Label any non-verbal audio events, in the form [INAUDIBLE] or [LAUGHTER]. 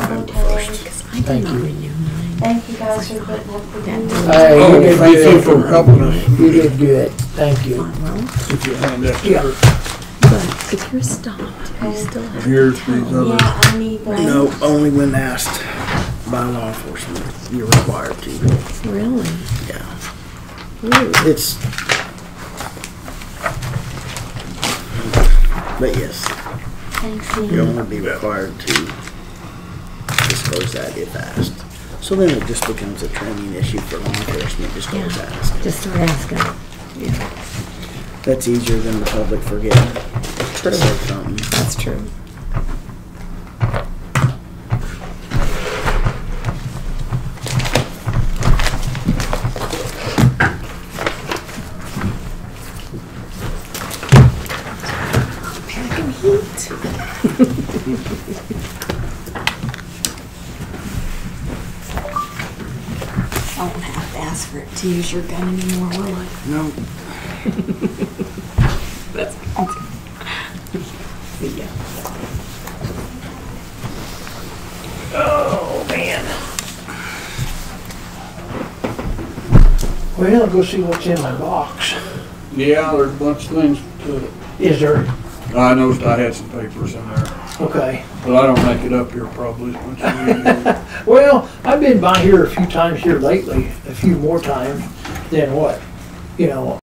November first. I did Thank not you. renew mine. Thank you guys for putting up with That me. doesn't Hey, Oh, you did, thank you good. for helping us. you did good. Thank you. want well, If you hand that to Yeah. her. but if you're stopped, you still have to Here's tell these me. other, Yeah, I need those. No, only when asked by law enforcement, you're required to. Really? Yeah. Ooh, It's. But yes, Thanks, you'll Ian. only be required to disclose that if asked. So then it just becomes a training issue for law enforcement, just always Yeah. ask. Just start asking. That's easier than the public forgetting. True. Something. That's true. Packing heat. [LAUGHS] I won't have to ask for it to use your gun anymore, will I? No, That's See ya. Well, go see what's in my box. yeah, there's a bunch of things to, Is there, I noticed I had some papers in there, okay. but I don't make it up here probably as much as you do. Well, I've been by here a few times here lately, a few more times than what, you know,